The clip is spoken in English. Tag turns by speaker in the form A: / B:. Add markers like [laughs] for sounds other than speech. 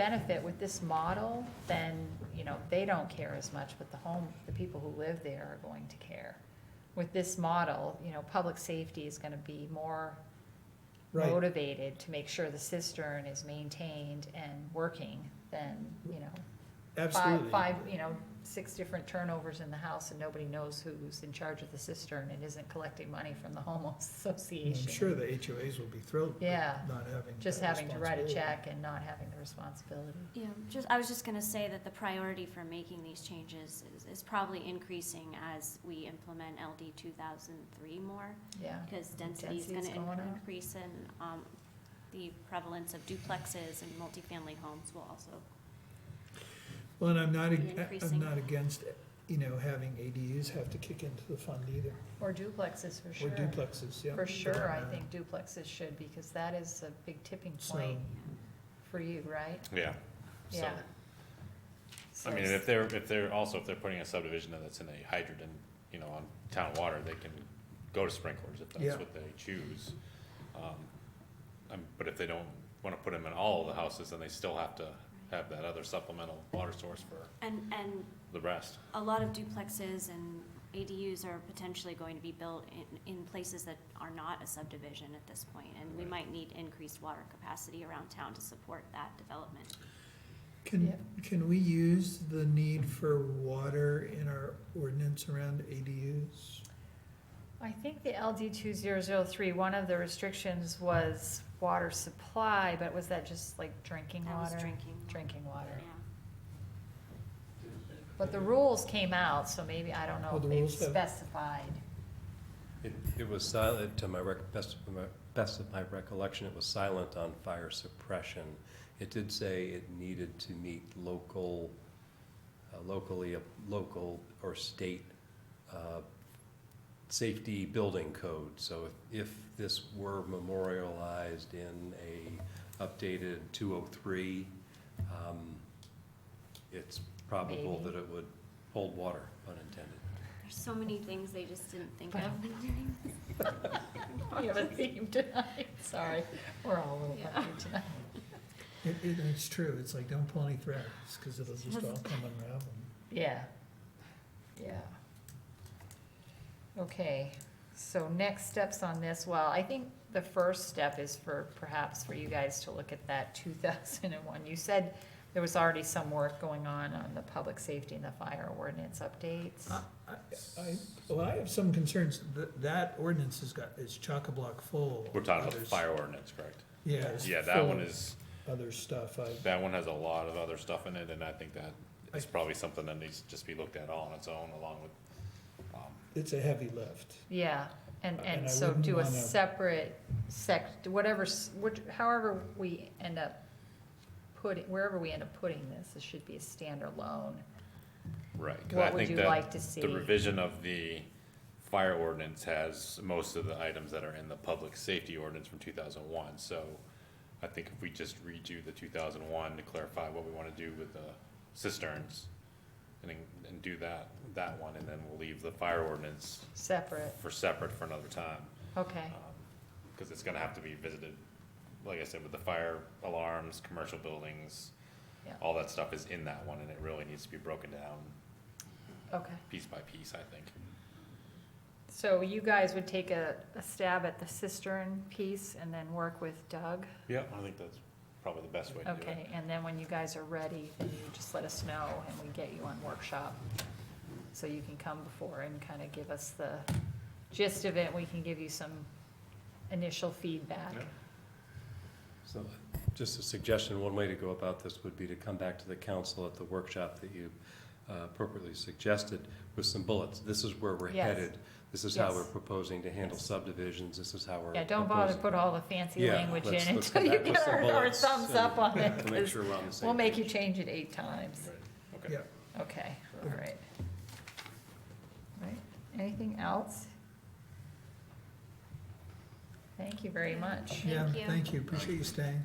A: benefit with this model, then, you know, they don't care as much, but the home, the people who live there are going to care. With this model, you know, public safety is gonna be more
B: Right.
A: motivated to make sure the cistern is maintained and working than, you know, five,
B: Absolutely.
A: five, you know, six different turnovers in the house and nobody knows who's in charge of the cistern and isn't collecting money from the homeowners [laughs] association.
B: I'm sure the HOAs will be thrilled with
A: Yeah.
B: not having.
A: Just
B: that
A: having to write a
B: responsibility.
A: check and not having the responsibility.
C: Yeah, just, I was just gonna say that the priority for making these changes is, is probably increasing as we implement LD two thousand three more,
A: Yeah,
C: because density is gonna
A: Density's going
C: in-
A: up.
C: increase and, um, the prevalence of duplexes and multifamily homes will also,
B: Well, and I'm not, ag- I'm
C: Increasing.
B: not against, you know, having ADUs have to kick into the fund either,
A: or duplexes for
B: or
A: sure.
B: duplexes, yeah. Uh,
A: For sure, I think duplexes should, because that is a big tipping point
B: So-
C: yeah.
A: for you, right?
D: Yeah. So,
A: Yeah.
D: I
A: So
D: mean, and
A: s-
D: if they're, if they're, also if they're putting a subdivision in that's in a hydrant and, you know, on town water, they can go to sprinklers if
B: Yeah.
D: that's what they choose. Um, Um, but if they don't wanna put them in all of the houses, then they still have to have that other supplemental water source for
C: And, and
D: the rest.
C: a lot of duplexes and ADUs are potentially going to be built in, in places that are not a subdivision at this point, and we might need increased water capacity around town to support that development.
B: Can,
A: Yep.
B: can we use the need for water in our ordinance around ADUs?
A: I think the LD two zero zero three, one of the restrictions was water supply, but was that just like drinking
C: That was
A: water?
C: drinking. water,
A: Drinking water.
C: Yeah.
A: But the rules came out, so maybe, I don't know
B: Oh,
A: if
B: the
A: they've
B: rules have-
A: specified. [laughs]
E: It, it was silent, to my rec, best of my, best of my recollection, it was silent on fire suppression. It did say it needed to meet local, uh, locally, local or state, uh, safety building code. So if, if this were memorialized in a updated two oh three, um, it's probable
A: Maybe.
E: that it would hold water, pun intended.
C: There's so many things they just didn't think of when doing this.
A: [laughs] We have a
C: [laughs]
A: theme tonight, sorry, we're all a little
C: Yeah.
A: puffy tonight.
B: It, it, it's true, it's like, don't pull any threads, cause it'll just all come unravel.
A: Yeah, yeah. Okay, so next steps on this, well, I think the first step is for, perhaps for you guys to look at that [laughs] two thousand and one. You said there was already some work going on on the public safety and the fire ordinance updates.
B: I, I, well, I have some concerns, that, that ordinance has got, is chock-a-block full.
D: We're talking about
B: Others-
D: fire ordinance, correct?
B: Yeah. it's
D: Yeah, that one
B: full of
D: is,
B: Other stuff, I,
D: that one has a lot of other stuff in it, and I think that is
B: I-
D: probably something that needs to just be looked at all on its own along with, um,
B: it's a heavy lift.
A: Yeah, and,
B: Uh, And I
A: and so
B: wouldn't
A: do a
B: wanna-
A: separate sec, whatever, s- which, however we end up putting, wherever we end up putting this, this should be a standalone.
D: Right. 'cause I
A: What would
D: think
A: you
D: that
A: like to see?
D: The revision of the fire ordinance has most of the items that are in the public safety ordinance from two thousand one, so I think if we just redo the two thousand one to clarify what we wanna do with the cisterns and, then- and do that, that one, and then we'll leave the fire ordinance
A: Separate,
D: for separate for another time.
A: okay.
D: um, Cause it's gonna have to be visited, like I said, with the fire alarms, commercial buildings,
A: Yeah.
D: all that stuff is in that one, and it really needs to be broken down
A: Okay,
D: piece by piece, I think.
A: so you guys would take a, a stab at the cistern piece and then work with Doug?
D: Yeah, I think that's probably the best way to do it.
A: Okay, and then when you guys are ready, then you just let us know and we get you on workshop. So you can come before and kind of give us the gist of it, we can give you some initial feedback.
D: Yeah.
E: So, just a suggestion, one way to go about this would be to come back to the council at the workshop that you uh, appropriately suggested with some bullets. This is where we're
A: Yes.
E: headed. This is how
A: Yes.
E: we're proposing to handle subdivisions. This is how we're.
A: Yeah, don't bother to
E: proposing-
A: put all the fancy
E: Yeah,
A: language in
E: let's- let's
A: [laughs] until
E: come
A: you
E: back with
A: get
E: some
A: our, our
E: bullets
A: thumbs
E: and-
A: up on it,
E: [laughs] To make
A: 'cause
E: sure we're on the same.
A: we'll make you
E: page.
A: change it eight times.
D: Right, okay.
B: Yeah,
A: Okay, all right. Right, anything else? Thank you very much.
C: Yeah.
B: yeah,
C: Thank you.
B: thank you, appreciate you staying.